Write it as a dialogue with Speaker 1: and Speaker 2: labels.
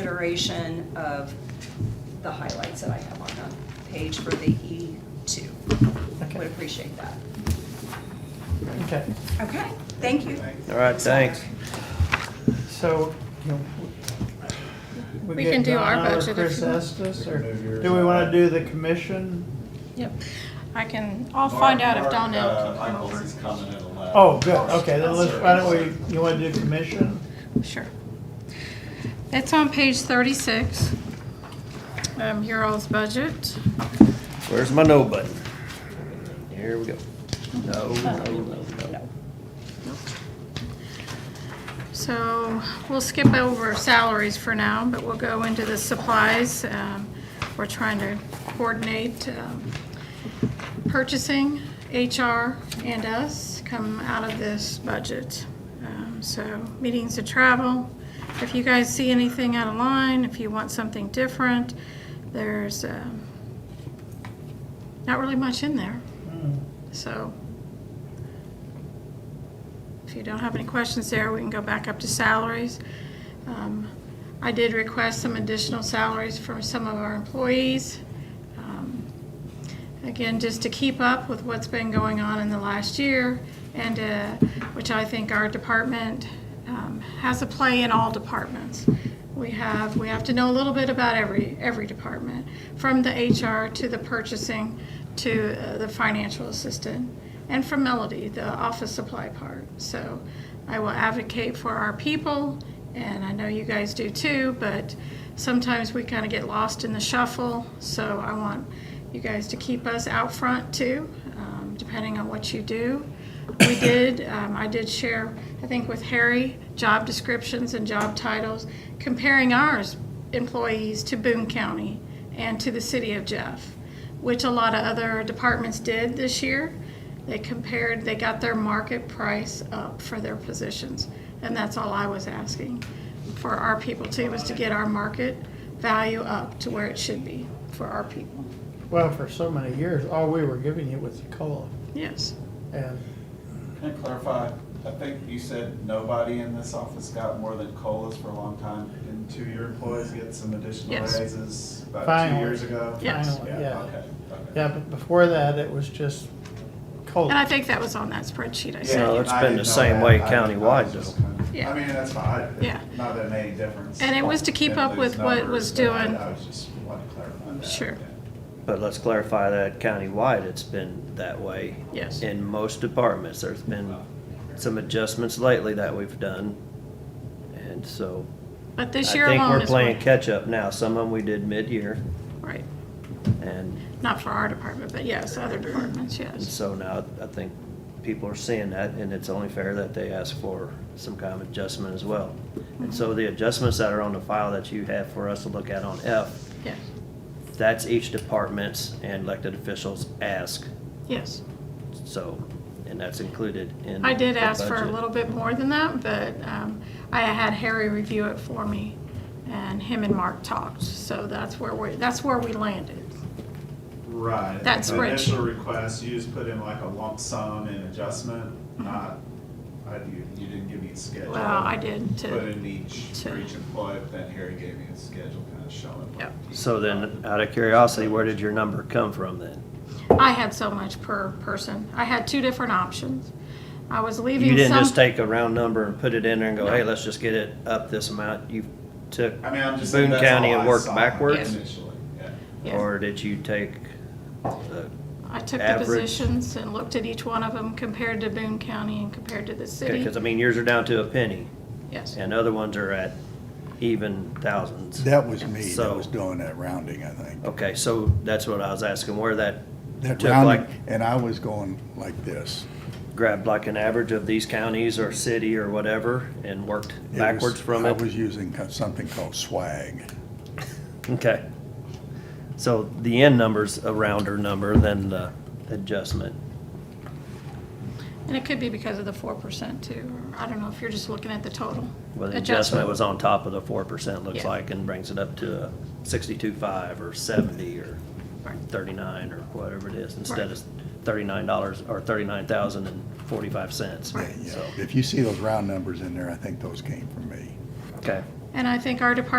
Speaker 1: consideration of the highlights that I have on the page for the E2.
Speaker 2: Okay.
Speaker 1: Would appreciate that.
Speaker 2: Okay,
Speaker 1: Okay, thank you.
Speaker 3: All right, thanks.
Speaker 2: so, you know.
Speaker 4: We
Speaker 2: get
Speaker 4: can do our
Speaker 2: Donna or
Speaker 4: budget if you
Speaker 2: Chris
Speaker 4: want.
Speaker 2: Estes, or
Speaker 5: We can move yours
Speaker 2: do we wanna
Speaker 5: up.
Speaker 2: do the commission?
Speaker 4: Yep, I can, I'll find out if Donnell can come
Speaker 5: uh, Michaels
Speaker 4: over.
Speaker 5: is coming at eleven.
Speaker 2: Oh, good, okay, then
Speaker 5: That's
Speaker 2: let's,
Speaker 5: right.
Speaker 2: why don't we, you wanna do commission?
Speaker 4: Sure. It's on page thirty-six. Um, your all's budget.
Speaker 3: Where's my no button? Here we go. No, no, no, no.
Speaker 4: So we'll skip over salaries for now, but we'll go into the supplies. Um, We're trying to coordinate um, purchasing, HR, and us come out of this budget. Um, So meetings and travel, if you guys see anything out of line, if you want something different, there's um, not really much in there. So if you don't have any questions there, we can go back up to salaries. Um, I did request some additional salaries from some of our employees. Um, Again, just to keep up with what's been going on in the last year and, uh, which I think our department um, has a play in all departments. We have, we have to know a little bit about every, every department, from the HR to the purchasing to uh, the financial assistant and from Melody, the office supply part. So I will advocate for our people, and I know you guys do too, but sometimes we kind of get lost in the shuffle. So I want you guys to keep us out front too, um, depending on what you do. We did, um, I did share, I think with Harry, job descriptions and job titles, comparing ours employees to Boone County and to the city of Jeff, which a lot of other departments did this year. They compared, they got their market price up for their positions, and that's all I was asking for our people too, was to get our market value up to where it should be for our people.
Speaker 2: Well, for so many years, all we were giving you was the COLA,
Speaker 4: Yes,
Speaker 2: and
Speaker 5: Can I clarify? I think you said nobody in this office got more than COLAs for a long time. Didn't two of your employees get some additional
Speaker 4: Yes.
Speaker 5: raises about two
Speaker 2: Finally.
Speaker 5: years ago?
Speaker 4: Yes.
Speaker 2: Finally,
Speaker 5: Yeah,
Speaker 2: yeah.
Speaker 5: okay, okay.
Speaker 2: yeah, but before that, it was just
Speaker 3: Oh.
Speaker 4: and I
Speaker 2: COLA.
Speaker 4: think that was on that spreadsheet I
Speaker 5: Yeah,
Speaker 4: sent.
Speaker 3: No, it's
Speaker 5: I
Speaker 3: been
Speaker 5: didn't
Speaker 3: the
Speaker 5: know
Speaker 3: same
Speaker 5: that.
Speaker 3: way
Speaker 5: I didn't know. I was
Speaker 3: countywide,
Speaker 5: just
Speaker 3: though.
Speaker 5: kind of-
Speaker 4: Yeah.
Speaker 5: I mean, that's fine. I-
Speaker 4: Yeah.
Speaker 5: Not that it made any difference.
Speaker 4: And it was to keep
Speaker 5: in
Speaker 4: up with
Speaker 5: these
Speaker 4: what was
Speaker 5: numbers, but I-
Speaker 4: doing-
Speaker 5: I was just wanting to clarify that.
Speaker 4: Sure.
Speaker 5: yeah.
Speaker 3: But let's clarify that countywide, it's been that way.
Speaker 4: Yes.
Speaker 3: In most departments, there's been some adjustments lately that we've done. And so
Speaker 4: But
Speaker 3: I
Speaker 4: this year
Speaker 3: think
Speaker 4: alone
Speaker 3: we're
Speaker 4: is.
Speaker 3: playing
Speaker 4: one-
Speaker 3: catch-up now. Some of them we did mid-year
Speaker 4: Right,
Speaker 3: and
Speaker 4: not for our department, but yes, other departments,
Speaker 3: And
Speaker 4: yes.
Speaker 3: so now, I think people are seeing that, and it's only fair that they ask for some kind of adjustment as well. And so
Speaker 4: Mm-hmm.
Speaker 3: the adjustments that are on the file that you have for us to look at on F,
Speaker 4: Yes,
Speaker 3: that's each department's and elected officials ask,
Speaker 4: yes.
Speaker 3: so, and that's included in.
Speaker 4: I did
Speaker 3: the
Speaker 4: ask for a
Speaker 3: budget.
Speaker 4: little bit more than that, but um, I had Harry review it for me, and him and Mark talked, so that's where we, that's where we landed.
Speaker 5: Right.
Speaker 4: That
Speaker 5: The Initial
Speaker 4: spreadsheet.
Speaker 5: request, you just put in like a lump sum and adjustment, not, I, you, you didn't give me a schedule.
Speaker 4: Mm-hmm. Well, I did
Speaker 5: Put
Speaker 4: to,
Speaker 5: in each, for
Speaker 4: to-
Speaker 5: each employee, but then Harry gave me a schedule kind of showing. what
Speaker 4: Yep.
Speaker 5: each-
Speaker 3: So then, out of curiosity, where did your number come from then?
Speaker 4: I had so much per person. I had two different options. I was leaving
Speaker 3: You
Speaker 4: some.
Speaker 3: didn't just take a round number and put it in there and go, hey, let's just get it up this amount, you took,
Speaker 5: I mean, I'm just.
Speaker 3: Boone
Speaker 5: saying that's
Speaker 3: County
Speaker 5: all
Speaker 3: and
Speaker 5: I
Speaker 3: work
Speaker 5: saw
Speaker 3: backwards?
Speaker 5: Initially, yeah.
Speaker 4: Yeah.
Speaker 3: or did you take the
Speaker 4: I took the
Speaker 3: average.
Speaker 4: positions and looked at each one of them compared to Boone County and compared to the
Speaker 3: Okay,
Speaker 4: city.
Speaker 3: because I mean, yours are down to a penny,
Speaker 4: Yes,
Speaker 3: and other ones are at even thousands.
Speaker 6: That was me that
Speaker 3: So-
Speaker 6: was doing Oh. that rounding, I think.
Speaker 3: Okay, so that's what I was asking, where that
Speaker 6: That
Speaker 3: Took
Speaker 6: rounding,
Speaker 3: like-
Speaker 6: and I was going like this.
Speaker 3: grabbed like an average of these counties or city or whatever and worked
Speaker 6: It was-
Speaker 3: backwards from
Speaker 6: I
Speaker 3: it?
Speaker 6: was using co- something called swag.
Speaker 3: Okay. So the end number's a rounder number than the adjustment.
Speaker 4: and it could be because of the four percent too. or I don't know if you're just looking at the total.
Speaker 3: Well, the adjustment was on top of the four percent, looks
Speaker 4: Yeah.
Speaker 3: like, and brings it up to sixty-two five or seventy or
Speaker 4: Right.
Speaker 3: thirty-nine or whatever it is,
Speaker 4: Right.
Speaker 3: instead of thirty-nine dollars or thirty-nine thousand and forty-five cents.
Speaker 6: Yeah, yeah. If you see those round numbers in there, I think those came from me.
Speaker 3: Okay.
Speaker 4: And I think our department